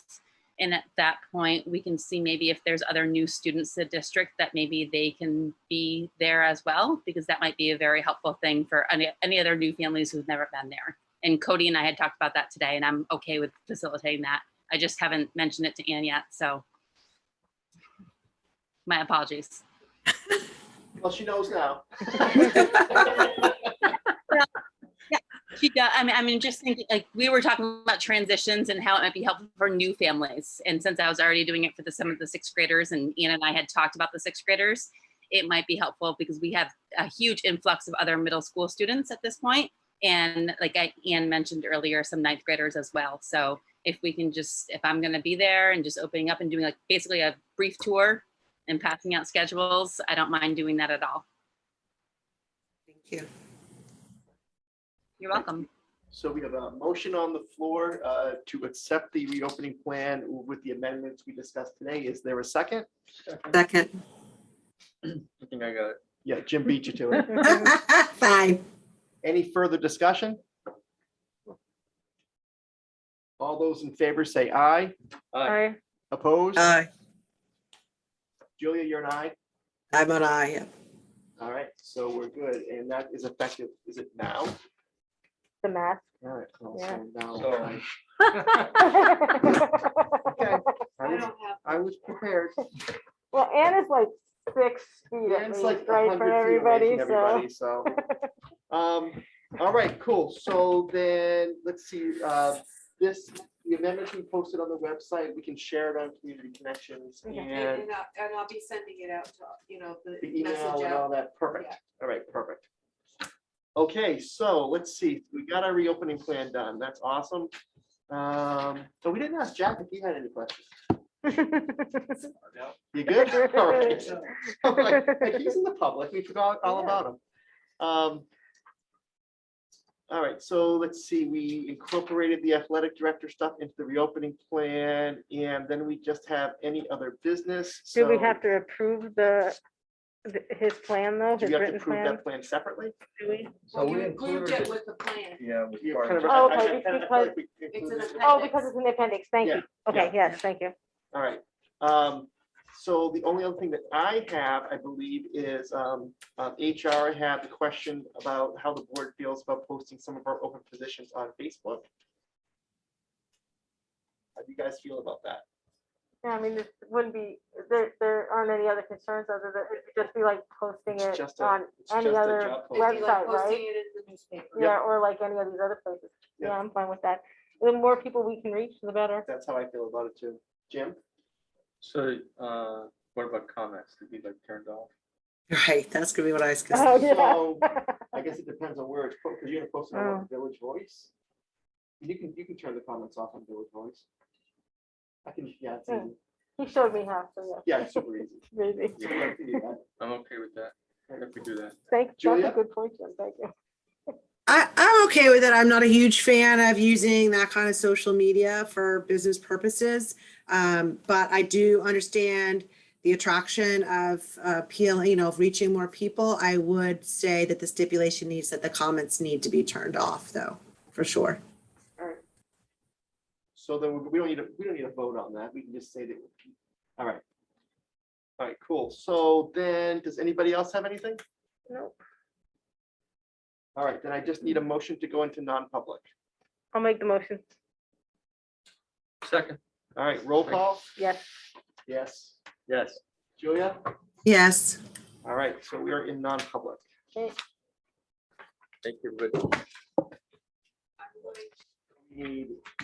and at that point, we can see maybe if there's other new students to the district that maybe they can be there as well, because that might be a very helpful thing for any, any other new families who've never been there. And Cody and I had talked about that today, and I'm okay with facilitating that. I just haven't mentioned it to Ann yet, so my apologies. Well, she knows now. She does, I mean, I mean, just thinking, like, we were talking about transitions and how it might be helpful for new families. And since I was already doing it for the, some of the sixth graders and Ian and I had talked about the sixth graders, it might be helpful because we have a huge influx of other middle school students at this point. And like I, Ian mentioned earlier, some ninth graders as well. So if we can just, if I'm gonna be there and just opening up and doing like basically a brief tour and passing out schedules, I don't mind doing that at all. Thank you. You're welcome. So we have a motion on the floor uh, to accept the reopening plan with the amendments we discussed today. Is there a second? Second. I think I got it. Yeah, Jim beat you to it. Five. Any further discussion? All those in favor say aye. Aye. Opposed? Aye. Julia, you're an aye. I'm an aye. yeah. All right, so we're good. And that is effective, is it now? The mask. All right. well, Yeah. so now So- I- Okay, I was- I was prepared. Well, Anne is like six feet at Dan's like least, right, 100 from feet away everybody, from so. everybody, so. Um, all right, cool. So then, let's see, uh, this, the amendments we posted on the website, we can share it on Community Connections Okay. and And and I'll, and I'll be sending it out to, you know, the the email message and out. all that. Perfect. Yeah. All right, perfect. Okay, so let's see, we got our reopening plan done. That's awesome. Um, so we didn't ask Jack if he had any questions. You good? All right. I'm like, like, He's in the public. We forgot all Yeah. about him. Um, All right, so let's see, we incorporated the athletic director stuff into the reopening plan, and then we just have any other business. Do we so- have to approve the, th- his plan though, Do his we have to written prove plan? that plan separately? Do we? So Well, we you included it included, with the plan. yeah, with Yeah, part kind of of- it. Oh, I- I- I- I okay, feel because- like we included It's it. an Oh, because it's an appendix, thank Yeah, you. Okay, yeah. yes, thank you. All right. Um, so the only other thing that I have, I believe, is, um, uh, HR had the question about how the board feels about posting some of our open positions on Facebook. How do you guys feel about that? Yeah, I mean, this wouldn't be, there, there aren't any other concerns other than it'd just be like posting It's it just a- on, it's Any just a other job It'd be like posting. website, right? Posting it in the newspaper. yeah, or like any of these other places. Yep. Yeah, I'm fine with that. The more people we can reach, the better. That's how I feel about it too. Jim? So, uh, what about comments? Did we like turned off? Right, that's gonna be what I was gonna Oh, yeah. So I guess it depends on where it's, because you're gonna post it on Oh. what, Village Voice. You can, you can turn the comments off on Village Voice. I can, yeah, it's Hmm. easy. He showed me how, so yeah, it's super easy. yeah, maybe. You don't have to do that. I'm okay with that, if we do that. Thanks, that's Julia? a good point, Jim, thank you. I, I'm okay with it. I'm not a huge fan of using that kind of social media for business purposes. Um, but I do understand the attraction of uh, appeal, you know, of reaching more people. I would say that the stipulation needs that the comments need to be turned off though, for sure. So then we- we don't need to, we don't need a vote on that. We can just say that. All right. All right, cool. So then, does anybody else have anything? No, All right, then I just need a motion to go into non-public. I'll make the motion. Second. All right, roll call. Yes. Yes. Yes. Julia? Yes. All right, so we are in non-public. Thank you, everybody. We Need